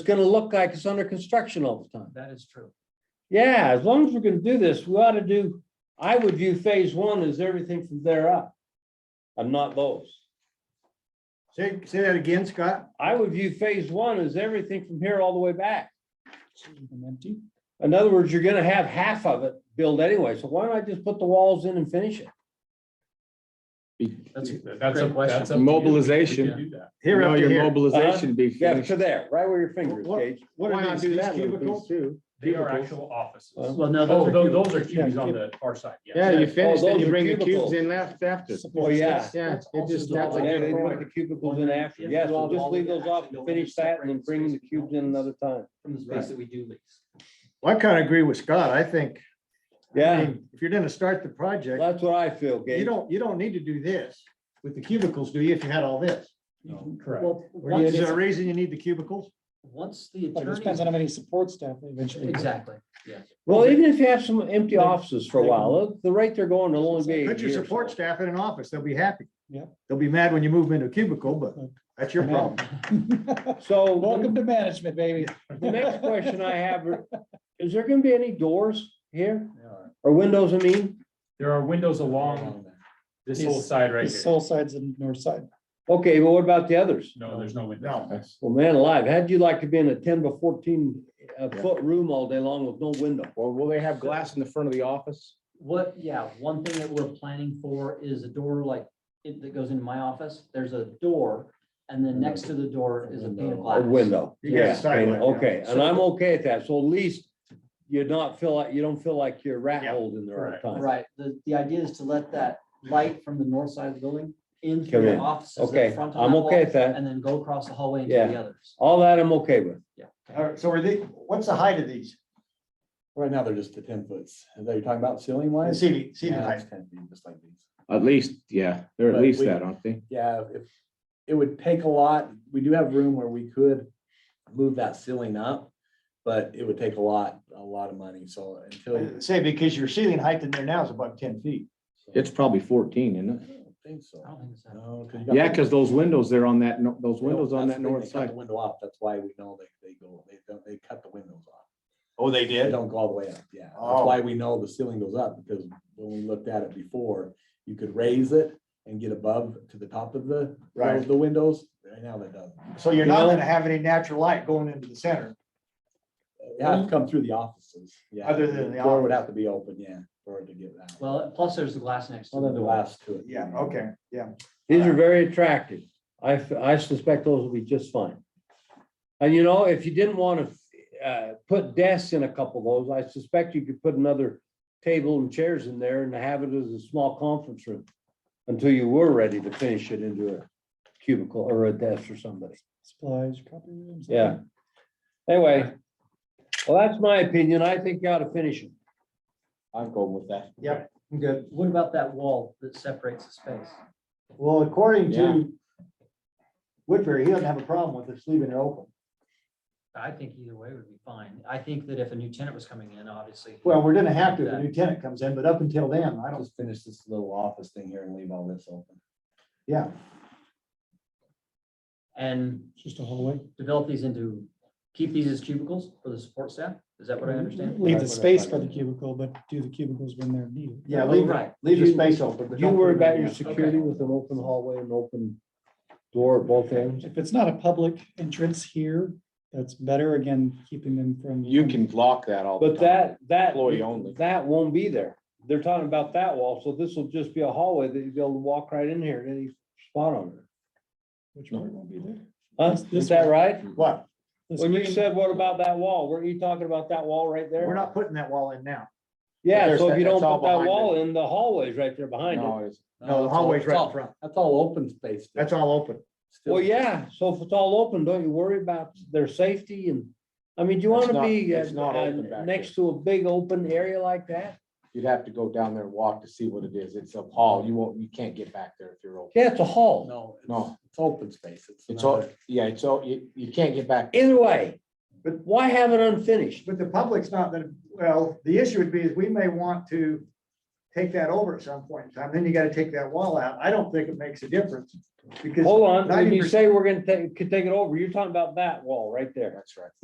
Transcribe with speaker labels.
Speaker 1: gonna look like it's under construction all the time.
Speaker 2: That is true.
Speaker 1: Yeah, as long as we're gonna do this, we ought to do, I would view phase one as everything from there up. And not those.
Speaker 3: Say, say that again, Scott.
Speaker 1: I would view phase one as everything from here all the way back. In other words, you're gonna have half of it built anyway, so why don't I just put the walls in and finish it?
Speaker 2: That's,
Speaker 4: That's a,
Speaker 2: Great question.
Speaker 4: that's a mobilization.
Speaker 2: do that.
Speaker 3: Here
Speaker 4: No,
Speaker 3: up to
Speaker 4: your
Speaker 3: here.
Speaker 4: mobilization be
Speaker 1: Yeah, to
Speaker 4: finished.
Speaker 1: there, right where your fingers,
Speaker 3: What-
Speaker 1: Gage.
Speaker 3: What
Speaker 4: Why
Speaker 3: are
Speaker 4: not
Speaker 3: these,
Speaker 4: do
Speaker 3: these
Speaker 4: that little piece
Speaker 3: cubicles?
Speaker 4: They are actual
Speaker 2: offices.
Speaker 1: Uh,
Speaker 2: Well, no, those
Speaker 4: Oh,
Speaker 2: are.
Speaker 4: tho-
Speaker 2: cubicles.
Speaker 4: those are
Speaker 2: Yeah,
Speaker 4: cubes on
Speaker 2: cubicles.
Speaker 4: the far side, yeah.
Speaker 1: Yeah.
Speaker 3: Yeah, you
Speaker 1: Oh,
Speaker 3: finish, then
Speaker 1: those
Speaker 3: you
Speaker 1: are
Speaker 3: bring the
Speaker 1: cubicles.
Speaker 3: cubes in left after.
Speaker 1: Oh, yeah.
Speaker 3: Yeah, it just,
Speaker 2: Also
Speaker 3: that's
Speaker 2: the-
Speaker 3: a
Speaker 1: Yeah, they
Speaker 3: good
Speaker 1: put
Speaker 3: point.
Speaker 1: the cubicles in after, yes, we'll just leave those off and finish that and then bring the cubes in another time.
Speaker 2: From the space that we do lease.
Speaker 3: Well, I kind of agree with Scott. I think, I
Speaker 1: Yeah,
Speaker 3: mean, if you're gonna start the project,
Speaker 1: that's what I feel,
Speaker 3: you
Speaker 1: Gage.
Speaker 3: don't, you don't need to do this with the cubicles, do you, if you had all this?
Speaker 4: Correct.
Speaker 5: Well,
Speaker 3: Or Is
Speaker 5: once
Speaker 3: there a
Speaker 5: it's-
Speaker 3: reason you need the cubicles?
Speaker 2: Once the
Speaker 5: but it depends on how
Speaker 2: attorney.
Speaker 5: many support staff they eventually. get.
Speaker 2: Exactly.
Speaker 1: Well, even if you have some empty offices for a while, the rate they're going will only be. a
Speaker 3: Put your
Speaker 1: year or
Speaker 3: support
Speaker 1: so.
Speaker 3: staff in an office, they'll be happy.
Speaker 5: Yeah.
Speaker 3: They'll be mad when you move them into a cubicle, but that's your problem.
Speaker 1: So.
Speaker 5: Welcome to management, baby.
Speaker 1: The next question I have, is there gonna be any doors here or windows, I mean?
Speaker 4: There are windows along this whole
Speaker 5: These-
Speaker 4: side right
Speaker 5: The
Speaker 4: here.
Speaker 5: soul sides and north side.
Speaker 1: Okay, but what about the others?
Speaker 4: No, there's no window.
Speaker 3: No.
Speaker 1: Well, man alive, how'd you like to be in a ten by fourteen uh, foot room all day long with no window?
Speaker 6: Well, will they have glass in the front of the office?
Speaker 2: What, yeah, one thing that we're planning for is a door like, it, that goes into my office, there's a door. And then next to the door is a pane of
Speaker 1: A
Speaker 2: glass.
Speaker 1: window.
Speaker 3: You got a side
Speaker 1: pane,
Speaker 3: light, yeah.
Speaker 1: Okay, and I'm okay at that. So at least you're not feel like, you don't feel like you're rat
Speaker 3: Yeah,
Speaker 1: holed in there all the time.
Speaker 2: Right, the, the idea is to let that light from the north side of the building in
Speaker 1: Come
Speaker 2: through the
Speaker 1: in.
Speaker 2: offices. at the
Speaker 1: Okay,
Speaker 2: front of
Speaker 1: I'm
Speaker 2: that
Speaker 1: okay
Speaker 2: wall,
Speaker 1: at that.
Speaker 2: And then go across the hallway into
Speaker 1: Yeah.
Speaker 2: the others.
Speaker 1: All that I'm okay with.
Speaker 3: All right, so are they, what's the height of these?
Speaker 7: Right now, they're just the ten foots. Are they talking about ceiling
Speaker 3: The
Speaker 7: wise?
Speaker 3: ceiling, ceiling
Speaker 7: Yeah,
Speaker 3: height.
Speaker 7: it's 10 feet, just like these.
Speaker 6: At least, yeah, they're at
Speaker 7: But
Speaker 6: least
Speaker 7: we-
Speaker 6: that, aren't they?
Speaker 7: Yeah, if, it would take a lot. We do have room where we could move that ceiling up, but it would take a lot, a lot of money. So until. I
Speaker 3: Say, because your ceiling height in there now is about ten feet.
Speaker 6: It's probably fourteen, isn't it?
Speaker 7: don't Think so.
Speaker 2: I don't think so.
Speaker 7: No, you got-
Speaker 6: Yeah, because those windows there on that, no- those
Speaker 7: They don't-
Speaker 6: windows on
Speaker 7: that's
Speaker 6: that
Speaker 7: the thing,
Speaker 6: north
Speaker 7: they cut the
Speaker 6: side.
Speaker 7: Window off. That's why we know they, they go, they don't, they cut the windows off.
Speaker 3: Oh, they
Speaker 7: They
Speaker 3: did?
Speaker 7: don't go all the way up, yeah. That's
Speaker 3: Oh.
Speaker 7: why we know the ceiling goes up, because when we looked at it before, you could raise it and get above to the top of the,
Speaker 3: Right.
Speaker 7: the windows. Right now, that doesn't.
Speaker 3: So you're
Speaker 1: You
Speaker 3: not
Speaker 1: know-
Speaker 3: gonna have any natural light going into the center.
Speaker 7: It has to come through the offices, yeah.
Speaker 3: Mm-hmm. Other than the
Speaker 7: Door would
Speaker 3: office.
Speaker 7: have to be open, yeah, for it to get that.
Speaker 2: Well, plus there's the glass next to
Speaker 7: One of
Speaker 2: the
Speaker 7: the
Speaker 2: glass.
Speaker 7: last to it.
Speaker 3: Yeah, okay, yeah.
Speaker 1: These are very attractive. I, f- I suspect those will be just fine. And you know, if you didn't want to, uh, put desks in a couple of those, I suspect you could put another table and chairs in there and have it as a small conference room until you were ready to finish it into a cubicle or a desk for somebody.
Speaker 5: Supplies, copy rooms.
Speaker 1: Yeah. Anyway, well, that's my opinion. I think you ought to finish it.
Speaker 6: I'm going with that.
Speaker 3: I'm good.
Speaker 2: What about that wall that separates the space?
Speaker 3: Well, according to Woodbury, he doesn't have a problem with us leaving it open.
Speaker 2: I think either way would be fine. I think that if a new tenant was coming in, obviously.
Speaker 3: Well, we're gonna have to if a new tenant comes in, but up until then, I
Speaker 7: I'll
Speaker 3: don't,
Speaker 7: just finish this little office thing here and leave all this open.
Speaker 3: yeah.
Speaker 2: And
Speaker 5: It's Just a hallway.
Speaker 2: develop these into, keep these as cubicles for the support staff? Is that what
Speaker 5: Mm-hmm.
Speaker 2: I understand?
Speaker 5: Leave
Speaker 7: Right,
Speaker 5: the
Speaker 7: what
Speaker 5: space
Speaker 7: I-
Speaker 5: for the cubicle, but do the cubicles when they're needed.
Speaker 3: Yeah,
Speaker 2: Oh,
Speaker 3: leave, it-
Speaker 2: right.
Speaker 3: leave the
Speaker 1: You-
Speaker 3: space open. but
Speaker 1: Do you
Speaker 3: don't
Speaker 1: worry
Speaker 3: put it
Speaker 1: about
Speaker 3: in
Speaker 1: your
Speaker 3: there.
Speaker 1: security with an open hallway and open door at both ends?
Speaker 5: If it's not a public entrance here, that's better, again, keeping them from.
Speaker 6: You can block that all. the
Speaker 1: But
Speaker 6: time.
Speaker 1: that, that,
Speaker 6: Employee only.
Speaker 1: that won't be there. They're talking about that wall, so this will just be a hallway that you'll be able to walk right in here at any spot on it.
Speaker 5: Which part won't be there?
Speaker 1: Huh?
Speaker 5: This- this
Speaker 1: Is that
Speaker 5: one.
Speaker 1: right?
Speaker 3: What?
Speaker 5: This
Speaker 1: When you
Speaker 5: green-
Speaker 1: said, what about that wall? Were you talking about that wall right there?
Speaker 3: We're not putting that wall in now.
Speaker 1: Yeah,
Speaker 6: There's
Speaker 1: so if
Speaker 6: that-
Speaker 1: you don't
Speaker 6: that's all
Speaker 1: put that
Speaker 6: behind
Speaker 1: wall in, the hallway's right there behind it.
Speaker 6: No, it's,
Speaker 3: No, the
Speaker 7: that's all-
Speaker 3: hallway's
Speaker 7: that's
Speaker 3: right
Speaker 7: all-
Speaker 3: in front.
Speaker 7: That's all open space. still.
Speaker 3: That's all open.
Speaker 7: Still-
Speaker 1: Well, yeah, so if it's all open, don't you worry about their safety and, I mean, do you
Speaker 6: It's
Speaker 1: want to
Speaker 6: not-
Speaker 1: be uh,
Speaker 6: it's not open
Speaker 1: uh,
Speaker 6: back
Speaker 1: next to a big open area like that?
Speaker 6: you'd have to go down there and walk to see what it is. It's a hall. You won't, you can't get back there if you're open.
Speaker 1: Yeah, it's a hall.
Speaker 7: No, it's,
Speaker 6: No.
Speaker 7: it's open space. It's.
Speaker 6: It's all,
Speaker 7: another-
Speaker 6: yeah, it's all, you, you can't get back.
Speaker 1: Either way,
Speaker 3: But-
Speaker 1: why have it unfinished?
Speaker 3: But the public's not gonna, well, the issue would be is we may want to take that over at some point in time, then you gotta take that wall out. I don't think it makes a difference. Because
Speaker 1: Hold on, when you
Speaker 3: 90%
Speaker 1: say we're gonna take, could take it over, you're talking about that wall right there.
Speaker 6: That's right.